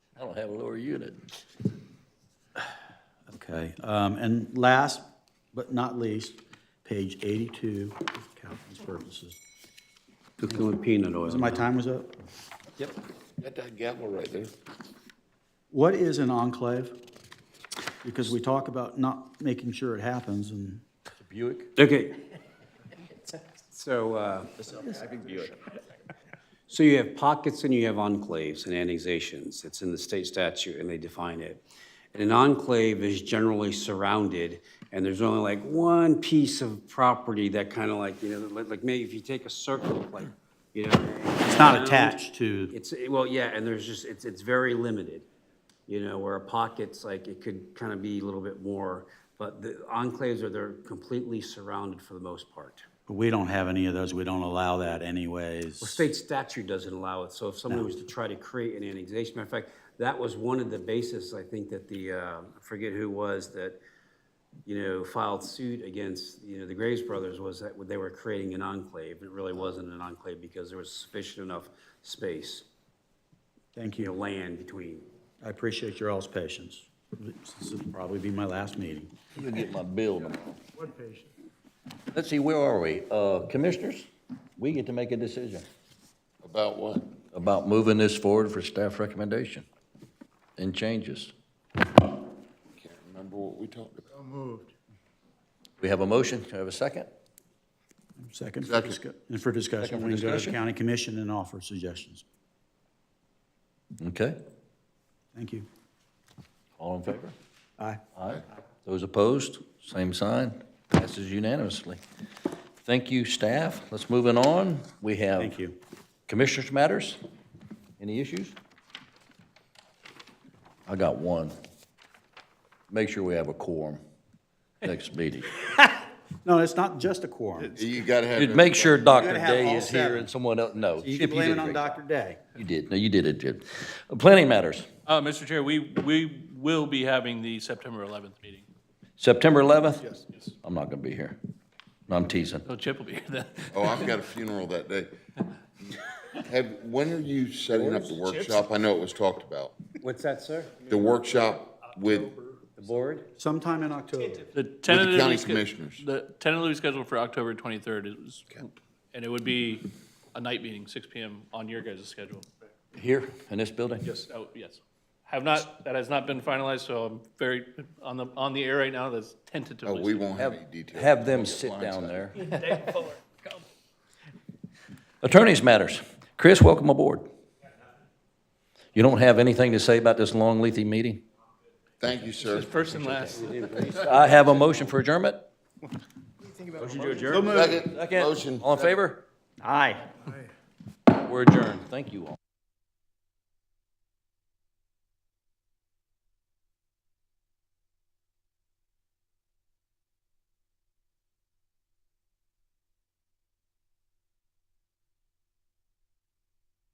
I'll have a lower unit. Okay, um, and last but not least, page eighty-two, Calvin's purposes. Cooking with peanut oil. My time was up. Yep. Got that gavel right there. What is an enclave? Because we talk about not making sure it happens and. It's a Buick. Okay. So, uh, so you have pockets and you have enclaves and annexations. It's in the state statute and they define it. And an enclave is generally surrounded and there's only like one piece of property that kind of like, you know, like, like maybe if you take a circle, like, you know. It's not attached to, It's, well, yeah, and there's just, it's, it's very limited, you know, where a pocket's like, it could kind of be a little bit more, but the enclaves are, they're completely surrounded for the most part. we don't have any of those, we don't allow that anyways. State statute doesn't allow it, so if somebody was to try to create an annexation, matter of fact, that was one of the basis, I think, that the, uh, I forget who was, that, you know, filed suit against, you know, the Graves Brothers, was that they were creating an enclave, it really wasn't an enclave because there was sufficient enough space, Thank you know, you, land between. I appreciate your all's patience. This will probably be my last meeting. I'm gonna get my bill tomorrow. Let's see, where are we? Uh, Commissioners, we get to make a decision. About what? About moving this forward for staff recommendation and changes. Can't remember what we talked about. We have a motion, Can I have a second? Second, for Second. discu- and for Second discussion, for we can go to the discussion? county commission and offer suggestions. Okay, Thank you. all in favor? Aye. Aye. Those opposed, same sign, passes unanimously. Thank you, staff. Let's move it on. We have. Thank you. Commissioners' matters? Any issues? I got one. Make sure we have a quorum next meeting. No, it's not just a quorum. You gotta have. Dude, make sure Dr. gotta have Day all is here seven. and someone else, no. You Chip, can blame did it a on great- Dr. Day. You did, no, you did it, Jim. Uh, Planning matters, Uh, Mr. Chair, we, we will be having the September 11th meeting. September 11th? Yes. I'm not gonna be here. No, I'm teasing. So Chip will be here then. Oh, I've got a funeral that day. Have, when are you setting up the workshop? I know it was talked about. What's that, sir? The workshop with, The board? Sometime in October. The tentatively county sched- commissioners. The tentatively scheduled for October 23rd is, and it would be a night meeting, 6 PM on your guys' schedule. Here, in this building? Yes, oh, yes. Have not, that has not been finalized, so I'm very, on the, on the air right now, that's oh, we tentatively. won't have any details. Have them sit down there. Attorneys matters. Chris, welcome aboard. You don't have anything to say about this long, lengthy meeting? Thank you, sir. First and last. I have a motion for adjournment. Second. Second. Motion. All in favor? Aye. We're adjourned. Thank you all.